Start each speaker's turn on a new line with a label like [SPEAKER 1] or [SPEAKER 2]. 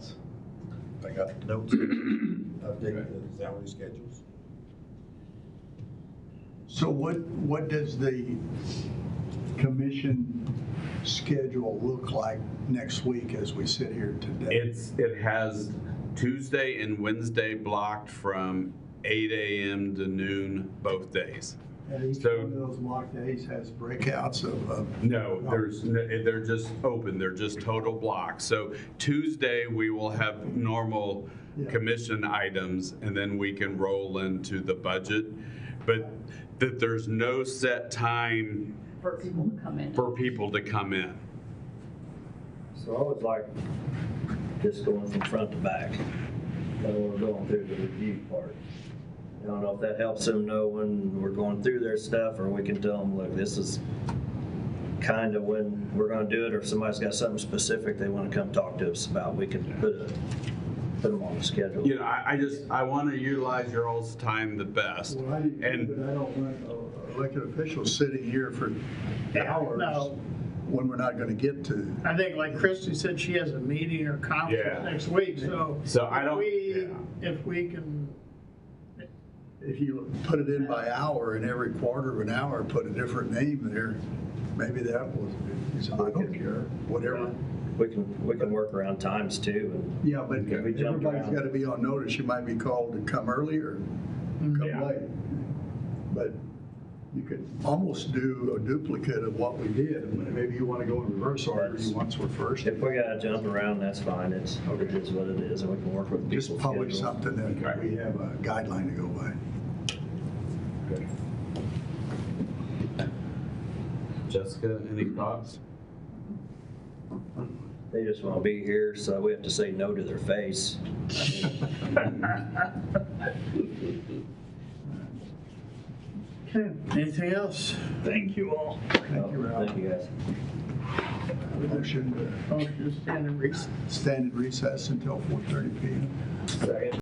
[SPEAKER 1] I got notes, update the salary schedules.
[SPEAKER 2] So what, what does the commission schedule look like next week as we sit here today?
[SPEAKER 3] It's, it has Tuesday and Wednesday blocked from eight AM to noon both days.
[SPEAKER 2] And each
[SPEAKER 3] so-
[SPEAKER 2] one of those mock days has breakouts of, uh, of
[SPEAKER 3] No, there's, n- they're just open, they're just total blocks. So Tuesday, we will have normal
[SPEAKER 2] Yeah.
[SPEAKER 3] commission items, and then we can roll into the budget. But that there's no set time
[SPEAKER 4] for people to come in.
[SPEAKER 3] for people to come in.
[SPEAKER 5] So I would like just going from front to back, when we're going through the review part. I don't know if that helps them know when we're going through their stuff, or we can tell them, look, this is kind of when we're gonna do it, or if somebody's got something specific they wanna come talk to us about, we can put a, put them on the schedule.
[SPEAKER 3] You know, I, I just, I want to utilize your all's time the best.
[SPEAKER 2] Well, I do,
[SPEAKER 3] And-
[SPEAKER 2] but I don't want uh, elected officials sitting here for hours
[SPEAKER 6] No.
[SPEAKER 2] when we're not gonna get to.
[SPEAKER 6] I think like Christie said, she has a meeting
[SPEAKER 3] Yeah.
[SPEAKER 6] or conference next week, so.
[SPEAKER 3] So I
[SPEAKER 6] if
[SPEAKER 3] don't-
[SPEAKER 6] we-
[SPEAKER 3] yeah.
[SPEAKER 6] If we can,
[SPEAKER 2] If you put it in by hour and every quarter of an hour, put a different name there, maybe that was, I don't care, whatever.
[SPEAKER 5] We can, we can work around times too, and
[SPEAKER 2] Yeah, but
[SPEAKER 5] Yeah, we jumped
[SPEAKER 2] everybody's
[SPEAKER 5] around.
[SPEAKER 2] gotta be on notice, you might be called to come early or come
[SPEAKER 5] Mm-hmm.
[SPEAKER 3] Yeah.
[SPEAKER 2] late. But you could almost do a duplicate of what we did, maybe you wanna go in reverse order, you once were first.
[SPEAKER 5] if we gotta jump around, that's fine, it's, it is what it is, and we can work with people's
[SPEAKER 2] Just publish
[SPEAKER 5] schedules.
[SPEAKER 2] something that
[SPEAKER 3] Okay.
[SPEAKER 2] we have a guideline to go by.
[SPEAKER 3] Jessica, any thoughts?
[SPEAKER 5] They just want to be here, so we have to say no to their face.
[SPEAKER 6] okay, anything else?
[SPEAKER 5] Thank you all.
[SPEAKER 2] Thank you, Ralph.
[SPEAKER 5] Thank you, guys.
[SPEAKER 2] Motion
[SPEAKER 6] Motion to stand in recess.
[SPEAKER 2] to stand in recess until 4:30 PM.